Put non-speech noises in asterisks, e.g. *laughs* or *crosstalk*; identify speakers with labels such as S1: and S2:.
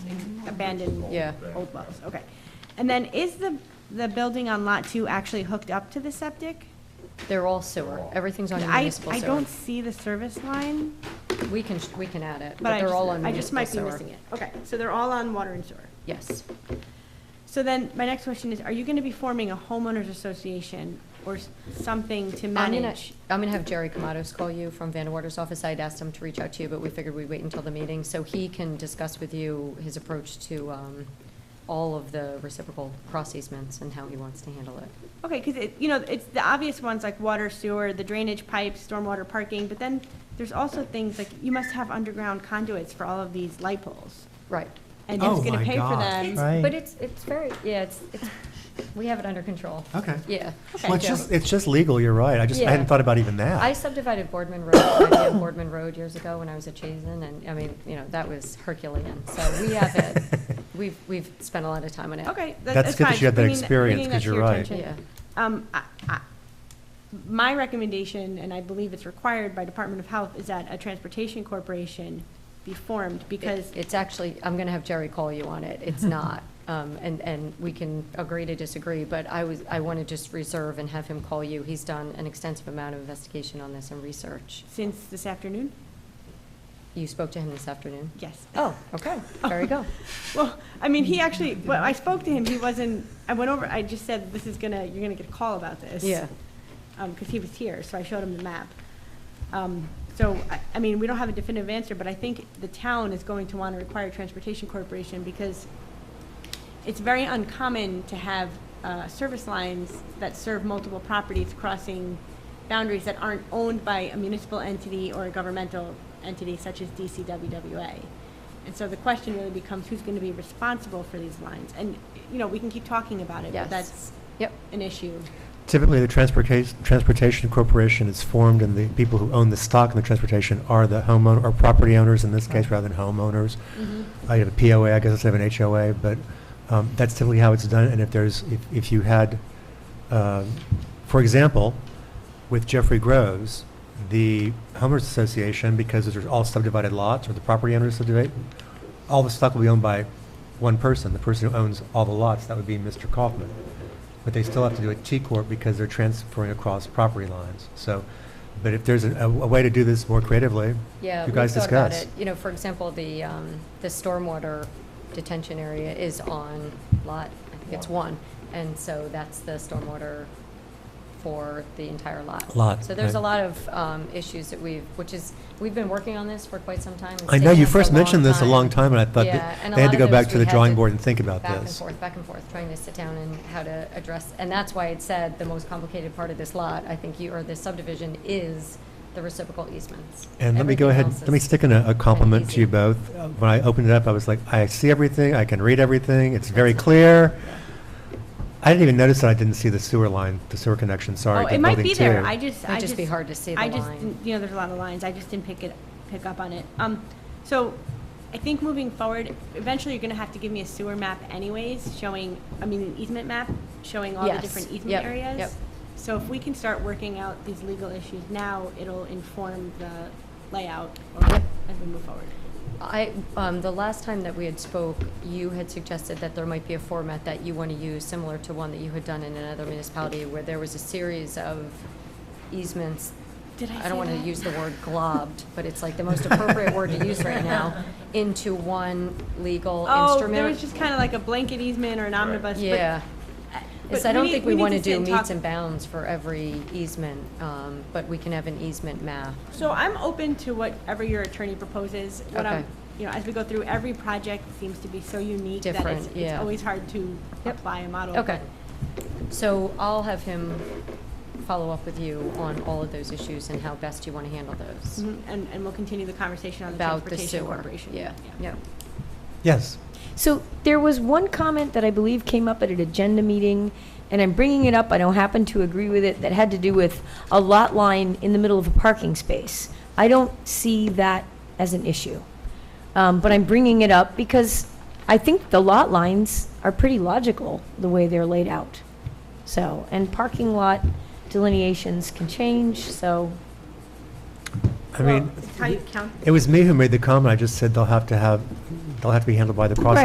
S1: abandoned
S2: Yeah.
S1: old wells, okay. And then is the, the building on Lot 2 actually hooked up to the septic?
S2: They're all sewer. Everything's on
S1: I,
S2: municipal
S1: I
S2: sewer.
S1: don't see the service line,
S2: We can, we can add it,
S1: but
S2: but
S1: I
S2: they're
S1: just,
S2: all on
S1: I
S2: municipal
S1: just
S2: sewer.
S1: might be missing it. Okay, so they're all on water and sewer.
S2: Yes.
S1: So then, my next question is, are you going to be forming a homeowners association or s- something to
S2: I'm gonna,
S1: manage?
S2: I'm gonna have Jerry Kamados call you from Van Order's office. I'd asked him to reach out to you, but we figured we'd wait until the meeting, so he can discuss with you his approach to, um, all of the reciprocal cross easements and how he wants to handle it.
S1: Okay, because it, you know, it's the obvious ones like water, sewer, the drainage pipes, stormwater parking, but then there's also things like, you must have underground conduits for all of these light poles.
S2: Right.
S1: And who's
S3: Oh
S1: going to
S3: my
S1: pay for
S3: God.
S1: them?
S3: Right.
S2: But it's, it's very, yeah, it's, it's, we have it under control.
S3: Okay.
S2: Yeah.
S3: Well, it's just, it's just legal, you're right. I just, I
S2: Yeah.
S3: hadn't thought about even
S2: I
S3: that.
S2: subdivided Boardman Road, I did *coughs* Boardman Road years ago when I was at Chazen, and, I mean, you know, that was Herculean, so we have it. We've, we've spent a lot of time on it.
S1: Okay, that- that's fine.
S3: That's good that you had that
S1: Bringing
S3: experience,
S1: bringing
S3: 'cause
S1: that to
S3: you're
S1: your
S3: right.
S1: attention.
S2: Yeah.
S1: Um, I- I- My recommendation, and I believe it's required by Department of Health, is that a transportation corporation be formed because
S2: It- It's actually, I'm going to have Jerry call you on it. It's not. Um, And, and we can agree to disagree, but I was, I want to just reserve and have him call you. He's done an extensive amount of investigation on this and research.
S1: since this afternoon,
S2: You spoke to him this afternoon?
S1: yes.
S2: Oh, okay. There
S1: *laughs*
S2: you go.
S1: Well, I mean, he actually, well, I spoke to him, he wasn't, I went over, I just said, this is gonna, you're gonna get a call about this.
S2: Yeah.
S1: Because he was here, so I showed him the map. Um, So, I- I mean, we don't have a definitive answer, but I think the town is going to want to require transportation corporation because it's very uncommon to have uh, service lines that serve multiple properties crossing boundaries that aren't owned by a municipal entity or a governmental entity such as DCWWA. And so the question really becomes who's going to be responsible for these lines? And, you know, we can keep talking about it,
S2: Yes.
S1: but that's
S2: Yep.
S1: an issue.
S3: Typically, the transportation, transportation corporation is formed and the people who own the stock in the transportation are the homeowner, or property owners in this case, rather than homeowners. I have a POA, I guess instead of an HOA, but um, that's typically how it's done. And if there's, if, if you had, um, for example, with Jeffrey Groves, the homeowners association, because those are all subdivided lots, or the property owners subdivide, all the stock will be owned by one person, the person who owns all the lots, that would be Mr. Kaufman. But they still have to do a T corp because they're transferring across property lines. So, but if there's a, a way to do this more creatively,
S2: Yeah.
S3: you
S2: we
S3: guys
S2: thought about
S3: discuss.
S2: it. You know, for example, the, um, the stormwater detention area is on lot, I think it's one. And so that's the stormwater for the entire lot.
S3: Lot,
S2: So there's a
S3: right.
S2: lot of, um, issues that we've, which is, we've been working on this for quite some time. It's
S3: I know
S2: taken
S3: you
S2: us a
S3: first
S2: long
S3: mentioned this a long time, and I thought
S2: Yeah, and a
S3: that
S2: lot
S3: they had to
S2: of
S3: go back
S2: those
S3: to
S2: we
S3: the
S2: had
S3: drawing board and think about
S2: Back and
S3: this.
S2: forth, back and forth, trying to sit down and how to address, and that's why it said the most complicated part of this lot, I think you, or this subdivision, is the reciprocal easements.
S3: And let me go ahead,
S2: Everything else
S3: let me
S2: is-
S3: stick in a- a compliment
S2: easy.
S3: to you both. Uh, When I opened it up, I was like, I see everything, I can read everything, it's very clear. I didn't even notice that I didn't see the sewer line, the sewer connection, sorry.
S1: Oh,
S3: to
S1: it might
S3: building
S1: be there,
S3: two.
S1: I just,
S2: It'd
S1: I
S2: just be hard to see the
S1: I just,
S2: line.
S1: didn't- you know, there's a lot of lines, I just didn't pick it, pick up on it. Um, so, I think moving forward, eventually you're gonna have to give me a sewer map anyways, showing, I mean, an easement map, showing all the
S2: Yes,
S1: different
S2: yep,
S1: easement areas.
S2: yep.
S1: So if we can start working out these legal issues now, it'll inform the layout or-
S2: Yep.
S1: as we move forward.
S2: I, um, the last time that we had spoke, you had suggested that there might be a format that you want to use, similar to one that you had done in another municipality, where there was a series of easements.
S1: Did I
S2: don't
S1: say
S2: want to
S1: that?
S2: use the
S1: *laughs*
S2: word globbed, but it's like the most appropriate word to use right now, into one legal
S1: Oh,
S2: instrument.
S1: there was just kinda like a blanket easement or an omnibus, but.
S2: Yeah.
S1: but
S2: So I don't
S1: need-
S2: think we
S1: need
S2: want to
S1: to sit
S2: do
S1: talk-
S2: meets and bounds for every easement, um, but we can have an easement map.
S1: So I'm open to whatever your attorney proposes. What I'm,
S2: Okay.
S1: you know, as we go through, every project seems to be so unique that it's,
S2: Different,
S1: it's
S2: yeah.
S1: always hard to
S2: Yep.
S1: apply a model.
S2: Okay. So I'll have him follow up with you on all of those issues and how best you want to handle those.
S1: Mhm, And, and we'll continue the conversation on the
S2: About the
S1: transportation
S2: sewer.
S1: corporation.
S2: Yeah, yeah.
S3: Yes,
S4: So there was one comment that I believe came up at an agenda meeting, and I'm bringing it up, I don't happen to agree with it, that had to do with a lot line in the middle of a parking space. I don't see that as an issue. Um, But I'm bringing it up because I think the lot lines are pretty logical, the way they're laid out. So, and parking lot delineations can change, so,
S3: I mean,
S1: It's how you count
S3: it was me who made the comment, I just said they'll have to have, they'll have to be handled by the prosecutor.